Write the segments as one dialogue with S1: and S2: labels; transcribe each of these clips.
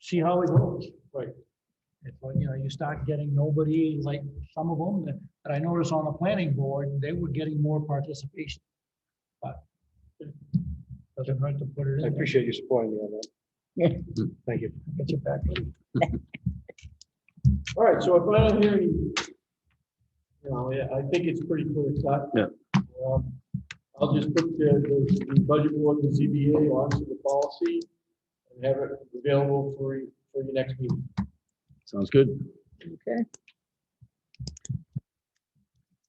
S1: see how it goes. Right. If, uh, you know, you start getting nobody, like some of them, that- that I noticed on the planning board, they were getting more participation. But it doesn't hurt to put it in.
S2: I
S1: there.
S2: appreciate you supporting me on that. Thank you.
S1: Get you back. in.
S3: All right, so if I don't hear any, you know, I- I think it's pretty clear cut.
S4: Yeah.
S3: Um, I'll just put the, the the budget board and ZBA onto the policy and have it available for, you- for your next meeting.
S4: Sounds good.
S5: Okay,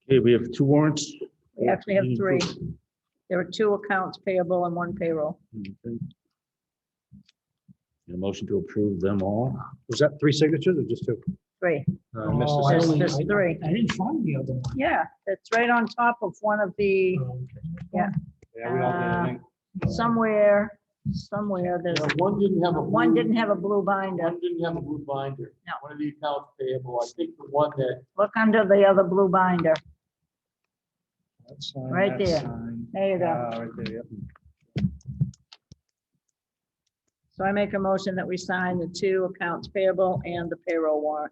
S4: Okay, we have two warrants.
S5: we actually have three. There are two accounts payable and one payroll.
S4: Okay. Need A motion to approve them all.
S2: Was that three signatures or just two?
S5: Three.
S2: I
S6: Uh,
S2: missed
S1: Oh,
S2: the
S1: I
S2: second.
S1: only-
S5: There's
S1: I-
S5: three.
S1: I didn't find the other one.
S5: Yeah, it's right on top of one of the,
S1: Oh, okay.
S2: Yeah, we don't have anything.
S5: somewhere, somewhere, there's,
S3: Now, One didn't have a.
S5: Uh, one
S3: blue-
S5: didn't have a blue binder.
S3: One didn't have a blue binder.
S5: No.
S3: One of the accounts payable, I think the one that,
S5: Look under the other blue binder.
S2: That's fine,
S5: Right
S2: that's
S5: there.
S2: fine.
S5: There you go.
S2: Ah, right there, yep.
S5: So I make a motion that we sign the two accounts payable and the payroll warrant.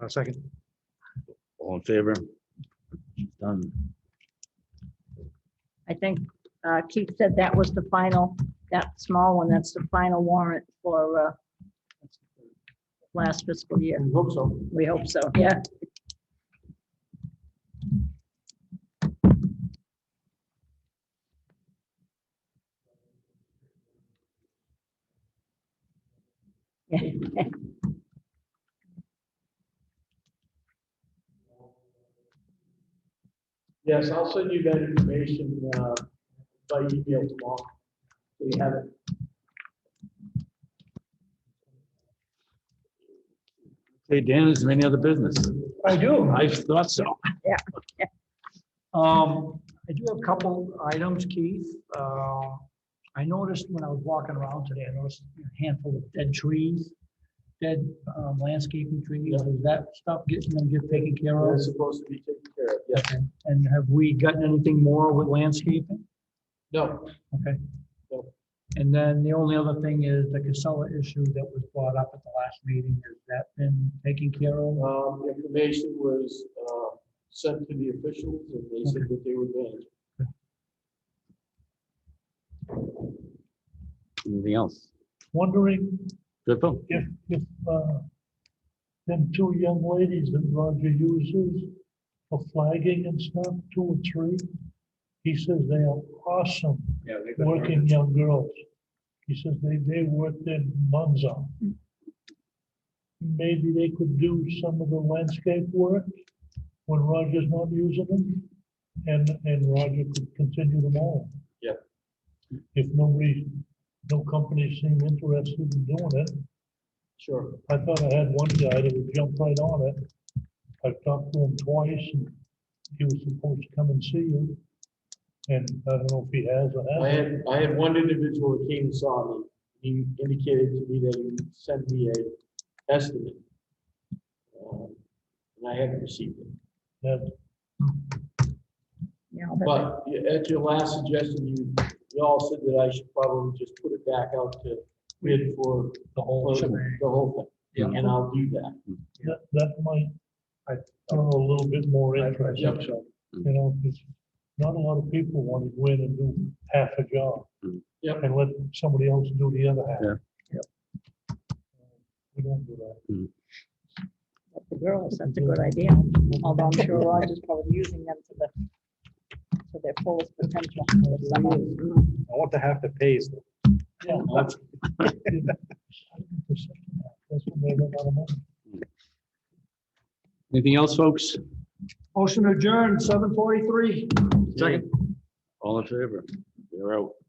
S2: Uh, Second.
S4: All in favor? Done.
S5: I think uh, Keith said that was the final, that small one, that's the final warrant for uh, last fiscal year.
S3: I hope so.
S5: We hope so, yeah.
S3: Yes, I'll send you that information, uh, by email tomorrow. So you have it.
S4: Hey, Dan, is there any other business?
S1: I do.
S4: I thought so.
S1: Um, I do have a couple items, Keith. Uh, I noticed when I was walking around today, I noticed a handful of dead trees, dead um, landscaping trees. Is that stuff getting them get taken care of?
S3: It's supposed to be taken care of, yes.
S1: Okay. And have we gotten anything more with landscaping?
S3: No,
S1: Okay.
S3: Nope.
S1: And then the only other thing is the Casella issue that was brought up at the last meeting. Has that been taken care of?
S3: um, information was, uh, sent to the officials and they said that they would manage.
S4: Anything else?
S6: wondering
S4: Good phone.
S6: if, if, uh, them two young ladies that Roger uses for flagging and stuff, two or three, he says they are awesome,
S2: Yeah, they've got
S6: working
S2: oranges.
S6: young girls. He says they, they work their buns off. Maybe they could do some of the landscape work when Roger's not using them, and, and Roger could continue them all.
S3: Yeah.
S6: If nobody, no company seemed interested in doing it,
S3: Sure.
S6: I thought I had one guy that would jump right on it. I talked to him twice and he was supposed to come and see you. And I don't know if he has or
S3: I
S6: hasn't.
S3: had, I had one individual that came and saw me. He indicated to me that he would send me a estimate. Um, And I haven't received it.
S6: That-
S5: Yeah, but-
S3: But yeah, at your last suggestion, you, you all said that I should probably just put it back out to bid for
S1: The whole
S3: for
S1: shebang.
S3: the whole thing. And I'll do that.
S6: That, that might, I throw a little bit more interest.
S3: Yep.
S6: You know, 'cause not a lot of people want to go in and do half a job.
S4: Mm.
S3: Yep.
S6: And let somebody else do the other half.
S4: Yeah.
S6: We don't do that.
S5: The girls, that's a good idea, although I'm sure Roger's probably using them to the, to their fullest potential. Some of them.
S2: I want the half that pays.
S6: Yeah. That's what they run out of money.
S4: Anything else, folks?
S1: Motion adjourned, seven forty-three.
S4: Second. All in favor? We're out.